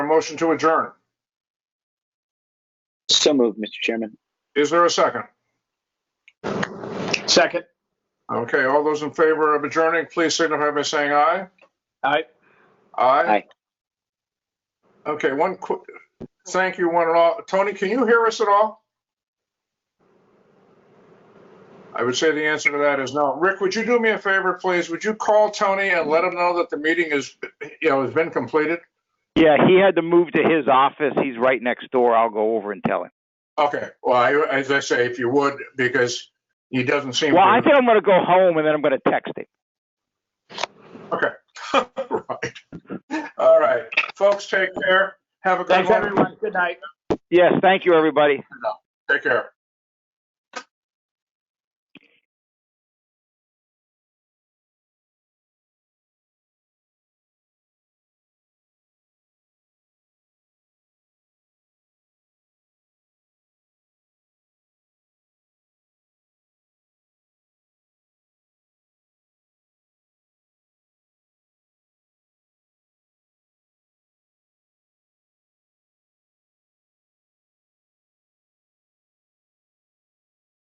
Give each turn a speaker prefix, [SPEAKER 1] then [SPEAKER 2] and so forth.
[SPEAKER 1] motion to adjourn?
[SPEAKER 2] So moved, Mr. Chairman.
[SPEAKER 1] Is there a second?
[SPEAKER 3] Second.
[SPEAKER 1] Okay, all those in favor of adjourning, please signify by saying aye.
[SPEAKER 3] Aye.
[SPEAKER 1] Aye.
[SPEAKER 2] Aye.
[SPEAKER 1] Okay, one quick, thank you one and all. Tony, can you hear us at all? I would say the answer to that is no. Rick, would you do me a favor, please? Would you call Tony and let him know that the meeting is, you know, has been completed?
[SPEAKER 4] Yeah, he had to move to his office. He's right next door. I'll go over and tell him.
[SPEAKER 1] Okay, well, I- as I say, if you would, because he doesn't seem.
[SPEAKER 4] Well, I
[SPEAKER 1] to-
[SPEAKER 4] think I'm going to go home and then I'm going to text him.
[SPEAKER 1] Right. All right, folks, take care. Have a good
[SPEAKER 3] Thanks,
[SPEAKER 1] one.
[SPEAKER 3] everyone. Good night.
[SPEAKER 4] Yes, thank you, everybody.
[SPEAKER 1] Take care.